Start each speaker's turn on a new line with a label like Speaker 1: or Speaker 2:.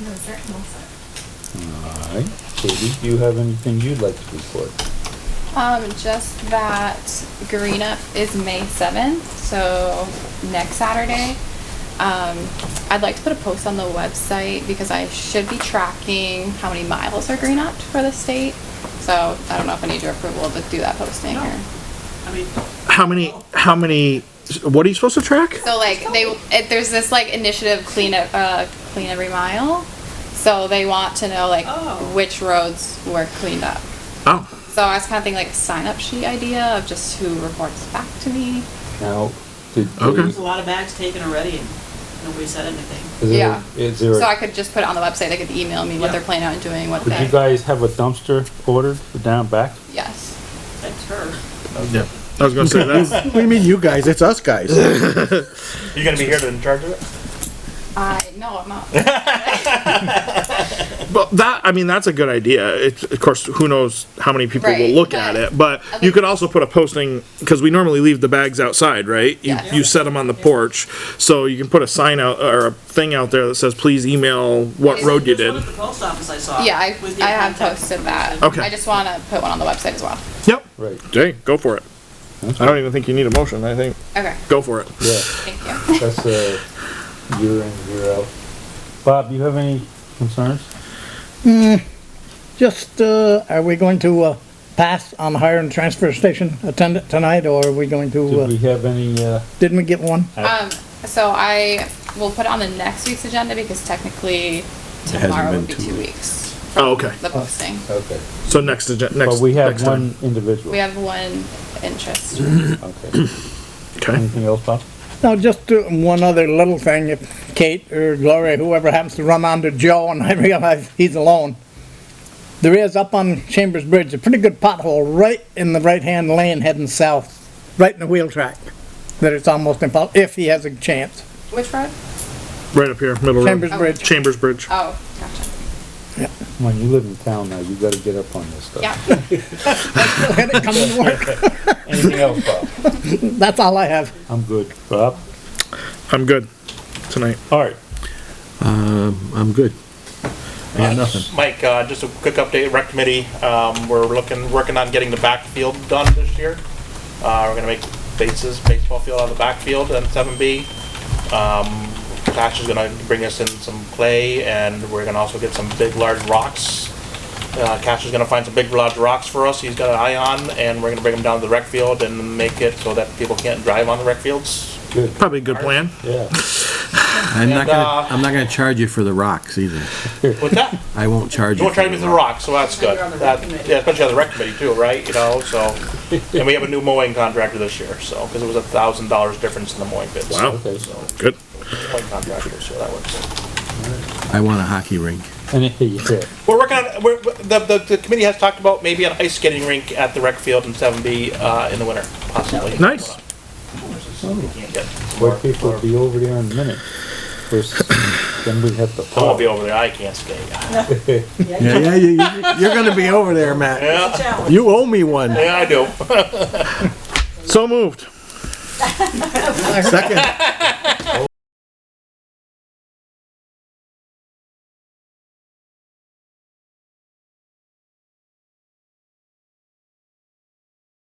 Speaker 1: No, sir, no, sir.
Speaker 2: All right. Katie, do you have anything you'd like to report?
Speaker 3: Um, just that Green Up is May seventh, so next Saturday. Um, I'd like to put a post on the website because I should be tracking how many miles are Green Up for the state. So I don't know if I need your approval to do that posting or.
Speaker 1: I mean,
Speaker 4: How many? How many? What are you supposed to track?
Speaker 3: So like they, it, there's this like initiative clean up, uh, clean every mile. So they want to know like
Speaker 1: Oh.
Speaker 3: which roads were cleaned up.
Speaker 4: Oh,
Speaker 3: So I was kind of thinking like a sign up sheet idea of just who reports back to me.
Speaker 2: Now, did.
Speaker 4: Okay.
Speaker 1: there's a lot of bags taken already and nobody said anything.
Speaker 2: Is there-
Speaker 3: Yeah.
Speaker 2: Is there,
Speaker 3: So I
Speaker 2: a-
Speaker 3: could just put it on the website. They could email me what
Speaker 1: Yeah.
Speaker 3: they're planning on doing, what
Speaker 2: did you
Speaker 3: they.
Speaker 2: guys have a dumpster ordered for down back?
Speaker 3: Yes.
Speaker 1: That's her.
Speaker 4: yeah. I was gonna say that.
Speaker 5: What do you mean, you guys? It's us guys.
Speaker 6: You gonna be here to in charge of it?
Speaker 3: I, no, I'm not.
Speaker 4: but that I mean that's a good idea. It's of course who knows how many people
Speaker 3: Right,
Speaker 4: will look
Speaker 3: but-
Speaker 4: at it, but
Speaker 3: Okay.
Speaker 4: you could also put a posting because we normally leave the bags outside, right? You,
Speaker 3: Yes.
Speaker 4: you set them on the porch, so you can put a sign out or a thing out there that says please email what
Speaker 3: Is it
Speaker 4: road you
Speaker 1: There's
Speaker 4: did.
Speaker 1: one at the post office I saw.
Speaker 3: Yeah, I,
Speaker 1: with your
Speaker 3: I have
Speaker 1: contact
Speaker 3: posted
Speaker 1: information.
Speaker 3: that.
Speaker 4: Okay.
Speaker 3: I just want to put one on the website as well.
Speaker 4: Yep.
Speaker 2: Right.
Speaker 4: Okay, go for it. I don't even think you need a motion. I think
Speaker 3: Okay,
Speaker 4: go for it.
Speaker 2: Yeah,
Speaker 3: thank you.
Speaker 2: that's a year in, year out. Bob, do you have any concerns?
Speaker 5: Just, uh, are we going to, uh, pass on hiring a transfer station attendant tonight, or are we going to,
Speaker 2: Did
Speaker 5: uh,
Speaker 2: we have any, uh,
Speaker 5: didn't we get one?
Speaker 3: Um, so I will put it on the next week's agenda because technically tomorrow would be two weeks. from
Speaker 4: Oh, okay.
Speaker 3: The posting.
Speaker 2: okay,
Speaker 4: So next agen- next
Speaker 2: but we have
Speaker 4: next time.
Speaker 2: one individual.
Speaker 3: We have one interest.
Speaker 2: Okay,
Speaker 4: Okay.
Speaker 2: anything else, Bob?
Speaker 5: Now, just uh, one other little thing, if Kate or Gloria, whoever happens to run onto Joe and I realize he's alone, there is up on Chambers Bridge, a pretty good pothole right in the right-hand lane heading south, right in the wheel track, that it's almost impossible, if he has a chance.
Speaker 3: Which road?
Speaker 4: Right up here, middle
Speaker 5: Chambers
Speaker 4: road.
Speaker 5: Bridge.
Speaker 4: Chambers Bridge.
Speaker 3: Oh, gotcha.
Speaker 2: When you live in town now, you gotta get up on this stuff.
Speaker 3: Yeah.
Speaker 5: Let it come to work.
Speaker 2: Anything else, Bob?
Speaker 5: That's all I have.
Speaker 2: I'm good. Bob?
Speaker 4: I'm good tonight.
Speaker 2: All right.
Speaker 7: I'm good. I got nothing.
Speaker 6: Mike, uh, just a quick update, rec committee, um, we're looking, working on getting the backfield done this year. Uh, we're gonna make bases, baseball field out of the backfield and seven B. Um, Clash is gonna bring us in some clay and we're gonna also get some big large rocks. Uh, Cash is gonna find some big large rocks for us, he's got an eye on, and we're gonna bring them down to the rec field and make it so that people can't drive on the rec fields.
Speaker 2: Good,
Speaker 4: Probably a good plan.
Speaker 2: yeah.
Speaker 7: I'm not
Speaker 6: And,
Speaker 7: gonna,
Speaker 6: uh,
Speaker 7: I'm not gonna charge you for the rocks either.
Speaker 6: What's that?
Speaker 7: I won't charge
Speaker 6: You
Speaker 7: you.
Speaker 6: won't try to
Speaker 7: for
Speaker 6: be the rock, so that's good.
Speaker 1: you're on the rec
Speaker 6: That,
Speaker 1: committee.
Speaker 6: yeah, especially on the rec committee too, right? You know, so, and we have a new mowing contractor this year, so, because it was a thousand dollars difference in the mowing bids.
Speaker 4: Wow.
Speaker 2: Okay.
Speaker 6: So,
Speaker 4: Good.
Speaker 6: mowing contractor, so that works.
Speaker 7: I want a hockey rink.
Speaker 2: Any, yeah.
Speaker 6: We're working on, we're, the, the, the committee has talked about maybe an ice skating rink at the rec field in seven B, uh, in the winter, possibly.
Speaker 4: Nice.
Speaker 6: Yeah.
Speaker 2: Where people will be over there in a minute. First, then we have to.
Speaker 6: I won't be over there, I can't skate.
Speaker 7: Yeah, yeah, you, you're gonna be over there, Matt.
Speaker 6: Yeah,
Speaker 1: Challenge.
Speaker 7: You owe me one.
Speaker 6: yeah, I do.
Speaker 4: So moved.
Speaker 7: Second,